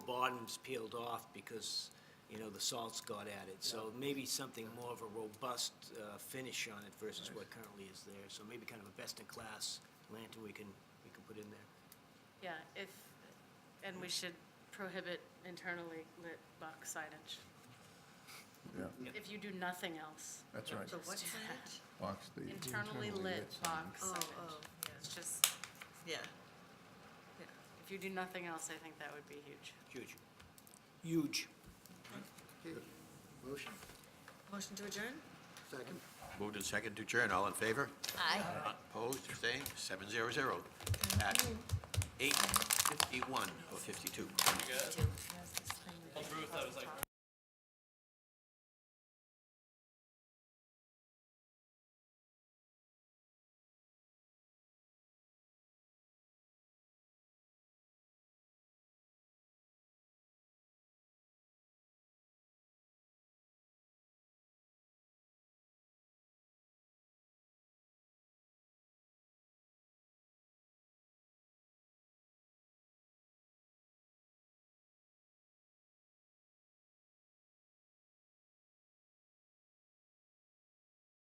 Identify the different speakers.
Speaker 1: bottom's peeled off because, you know, the salts got added. So maybe something more of a robust uh, finish on it versus what currently is there. So maybe kind of a best-in-class lantern we can, we can put in there.
Speaker 2: Yeah, if, and we should prohibit internally lit box signage,
Speaker 3: Yeah,
Speaker 2: if you do nothing else.
Speaker 3: that's right.
Speaker 4: So what's that?
Speaker 3: Box the.
Speaker 2: Internally lit box
Speaker 4: Oh,
Speaker 2: signage.
Speaker 4: oh,
Speaker 2: It's just,
Speaker 4: yeah, yeah.
Speaker 2: if you do nothing else, I think that would be huge.
Speaker 1: Huge. Huge.
Speaker 5: Motion?
Speaker 4: Motion to adjourn?
Speaker 5: Second?
Speaker 6: Moved and second to adjourn, all in favor?
Speaker 4: Aye.
Speaker 6: Opposed, abstained, seven zero zero at eight fifty-one or oh fifty-two.
Speaker 4: Two.